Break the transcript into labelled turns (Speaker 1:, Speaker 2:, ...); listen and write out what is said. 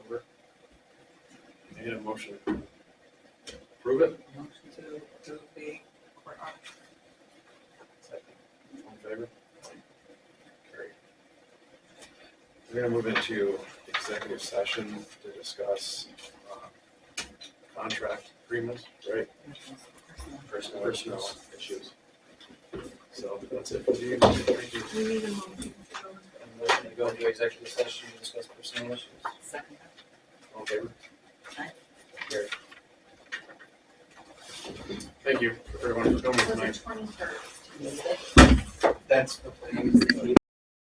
Speaker 1: I get a motion. Prove it,
Speaker 2: Motion to approve the court audit.
Speaker 1: all in favor? Carried. We're gonna move into executive session to discuss uh, contract agreements, right? Personnel. Personnel issues. So that's it. for you. Thank you.
Speaker 2: We need a motion to go.
Speaker 3: And motion to go into executive session to discuss personnel issues.
Speaker 2: Second.
Speaker 1: All in favor?
Speaker 2: Aye.
Speaker 1: Carried. Thank you, everyone, for coming
Speaker 2: Was
Speaker 1: tonight.
Speaker 2: it twenty-third?
Speaker 3: That's.